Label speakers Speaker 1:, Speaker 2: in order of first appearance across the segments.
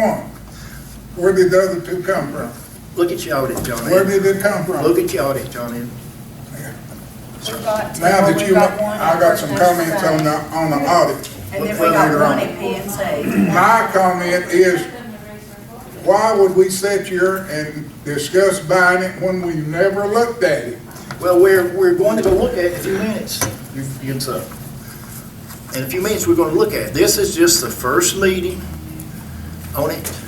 Speaker 1: from? Where did the other two come from?
Speaker 2: Look at your audit, John
Speaker 1: Where
Speaker 2: Ed.
Speaker 1: did it come from?
Speaker 2: Look at your audit, John Ed.
Speaker 3: We've got two,
Speaker 1: Now that
Speaker 3: we've
Speaker 1: you,
Speaker 3: got one
Speaker 1: I got
Speaker 3: first
Speaker 1: some
Speaker 3: and
Speaker 1: comments on
Speaker 3: second.
Speaker 1: the, on the audit.
Speaker 3: And then we
Speaker 1: later
Speaker 3: got
Speaker 1: on.
Speaker 3: one at P and Z.
Speaker 1: My comment is, why would we sit here and discuss buying it when we never looked at it?
Speaker 2: Well, we're, we're going to go look at it in a few minutes. You you can tell. In a few minutes, we're going to look at it. This is just the first meeting on it.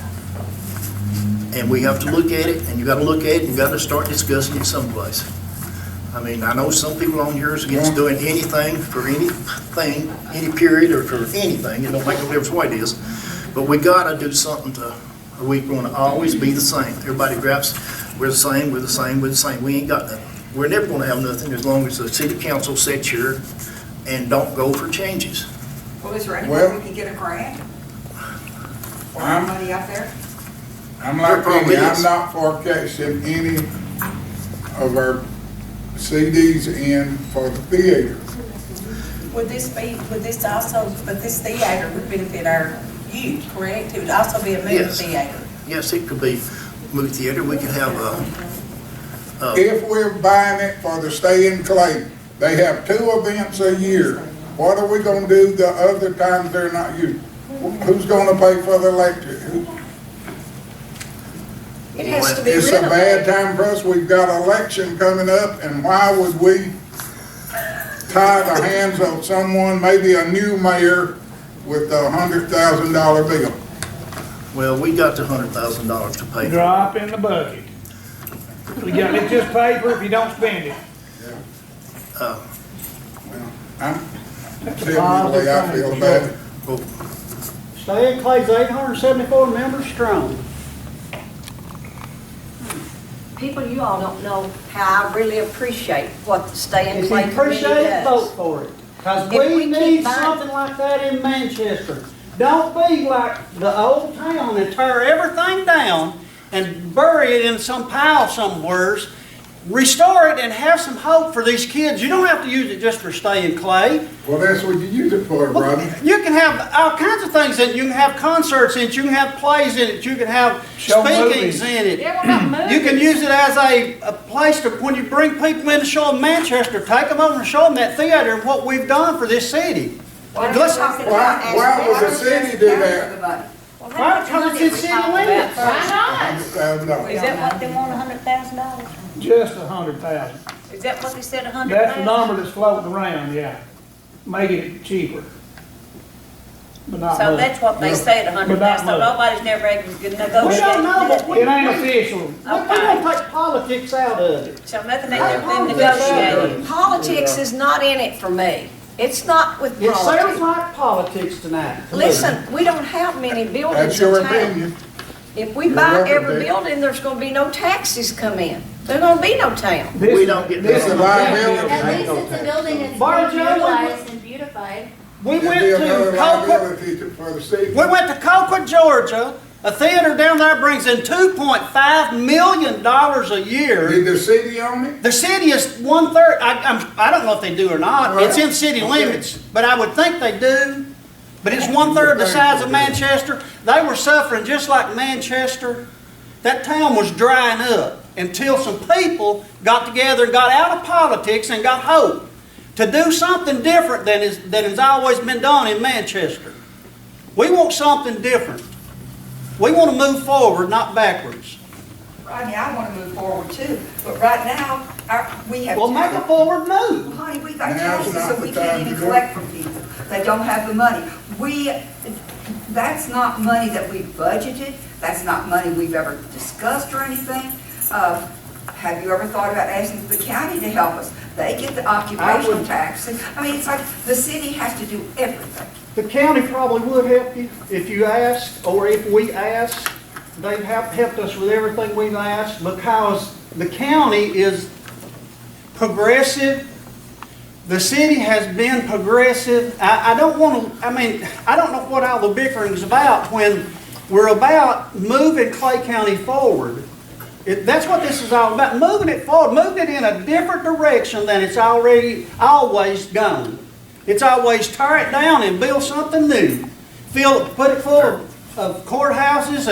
Speaker 2: And we have to look at it, and you got to look at it, and you got to start discussing it someplace. I mean, I know some people on here is against doing anything for anything, any period or for anything. It don't make no difference what it is. But we got to do something to, or we going to always be the same. Everybody grabs, we're the same, we're the same, we're the same. We ain't got nothing. We're never going to have nothing as long as the city council sits here and don't go for changes.
Speaker 4: Well, is there any
Speaker 1: Well-
Speaker 4: way we could get a grant? Or
Speaker 1: I'm-
Speaker 4: money out there?
Speaker 1: I'm like
Speaker 2: Your problem
Speaker 1: Penny, I'm
Speaker 2: is-
Speaker 1: not forecasting any of our CDs in for the theater.
Speaker 5: Would this be, would this also, but this theater would benefit our youth, correct? It would also be a movie
Speaker 2: Yes.
Speaker 5: theater.
Speaker 2: Yes, it could be movie theater, we could have a, a,
Speaker 1: If we're buying it for the stay in Clay, they have two events a year. What are we gonna do the other times they're not used? Who's gonna pay for the electric? Who-
Speaker 6: It has to be
Speaker 1: It's a bad
Speaker 6: renovated.
Speaker 1: time for us, we've got election coming up, and why would we tie the hands of someone, maybe a new mayor with a hundred thousand dollar bill?
Speaker 2: well, we got the hundred thousand dollars to pay. for it.
Speaker 7: Drop in the bucket. You got, it's just paper if you don't spend it.
Speaker 1: I'm, typically, I feel bad.
Speaker 2: Well,
Speaker 8: Stay in Clay's eight hundred and seventy-four members strong.
Speaker 6: People, you all don't know how I really appreciate what the Stay and
Speaker 8: If you
Speaker 6: Play Committee
Speaker 8: appreciate it, vote
Speaker 6: does.
Speaker 8: for it. Cause
Speaker 6: If we
Speaker 8: we need
Speaker 6: keep buying-
Speaker 8: something like that in Manchester. Don't be like the old town and tear everything down and bury it in some pile somewheres. Restore it and have some hope for these kids. You don't have to use it just for staying clay.
Speaker 1: Well, that's what you use it for,
Speaker 8: Well,
Speaker 1: Rodney.
Speaker 8: You can have all kinds of things in it. You can have concerts in it. You can have plays in it. You can have
Speaker 7: Show
Speaker 8: speakings
Speaker 7: movies.
Speaker 8: in it.
Speaker 6: Yeah, what about
Speaker 8: You can
Speaker 6: movies?
Speaker 8: use it as a, a place to, when you bring people in to show them Manchester, take them over and show them that theater and what we've done for this city.
Speaker 4: Why
Speaker 8: Let's-
Speaker 4: don't we talk
Speaker 1: why-
Speaker 4: about-
Speaker 1: why would the city do that?
Speaker 3: Well,
Speaker 8: Why don't you let the city limits?
Speaker 6: Why
Speaker 1: Thousand dollars.
Speaker 5: Is that what they want, a hundred thousand dollars?
Speaker 7: Just a hundred thousand.
Speaker 5: Is that what they said, a hundred
Speaker 7: That's
Speaker 5: thousand?
Speaker 7: the number that's floating around, yeah. Making it cheaper. But not
Speaker 5: So
Speaker 7: much.
Speaker 5: that's what they said, a hundred
Speaker 7: But not
Speaker 5: thousand, so
Speaker 7: much.
Speaker 5: nobody's never able to negotiate.
Speaker 8: We don't know, but we,
Speaker 7: It
Speaker 8: we
Speaker 7: ain't official.
Speaker 8: gonna take politics out of it.
Speaker 5: So nothing they
Speaker 6: not?
Speaker 5: been negotiated.
Speaker 6: Politics is not in it for me. It's not with
Speaker 8: It sounds
Speaker 6: politics.
Speaker 8: like politics tonight. to me.
Speaker 6: Listen, we don't have many
Speaker 1: That's
Speaker 6: buildings
Speaker 1: your
Speaker 6: in town.
Speaker 1: opinion.
Speaker 6: If we
Speaker 1: You're
Speaker 6: buy
Speaker 1: welcome,
Speaker 6: every
Speaker 1: Dick.
Speaker 6: building, there's gonna be no taxes come in. There gonna be no town.
Speaker 2: We don't get
Speaker 1: This is
Speaker 9: At
Speaker 1: liability.
Speaker 9: least it's a building that's
Speaker 8: Bar
Speaker 9: more
Speaker 8: Joe, what-
Speaker 9: utilized and beautified.
Speaker 8: We
Speaker 1: It'd
Speaker 8: went
Speaker 1: be another
Speaker 8: to Colquitt,
Speaker 1: liability to- for the city.
Speaker 8: we went to Colquitt, Georgia. A theater down there brings in two point five million dollars a year.
Speaker 1: Did the city own it?
Speaker 8: The city is one third, I, I'm, I don't know if they do or not, it's in city
Speaker 1: Right. Okay.
Speaker 8: limits, but I would think they do. But it's one third the size of Manchester, they were suffering just like Manchester. That town was drying up until some people got together and got out of politics and got hope to do something different than is, than has always been done in Manchester. We want something different. We want to move forward, not backwards.
Speaker 4: Rodney, I want to move forward too, but right now, our, we have.
Speaker 8: Well, make a forward move.
Speaker 4: Well, Honey, we got
Speaker 1: Now's
Speaker 4: taxes
Speaker 1: not
Speaker 4: that
Speaker 1: the
Speaker 4: we
Speaker 1: time
Speaker 4: can't
Speaker 1: to
Speaker 4: even
Speaker 1: do it.
Speaker 4: collect from people. They don't have the money. We, that's not money that we budgeted. That's not money we've ever discussed or anything. Uh, Have you ever thought about asking the county to help us? They get the occupational taxes. I mean, it's like the city has to do everything.
Speaker 8: The county probably would help you if you asked, or if we asked. They've hap- helped us with everything we've asked because the county is progressive. The city has been progressive. I, I don't want to, I mean, I don't know what all the bickering's about when we're about moving Clay County forward. It, that's what this is all about, moving it forward, moving it in a different direction than it's already, always gone. It's always tear it down and build something new. Fill, put it full of- of courthouses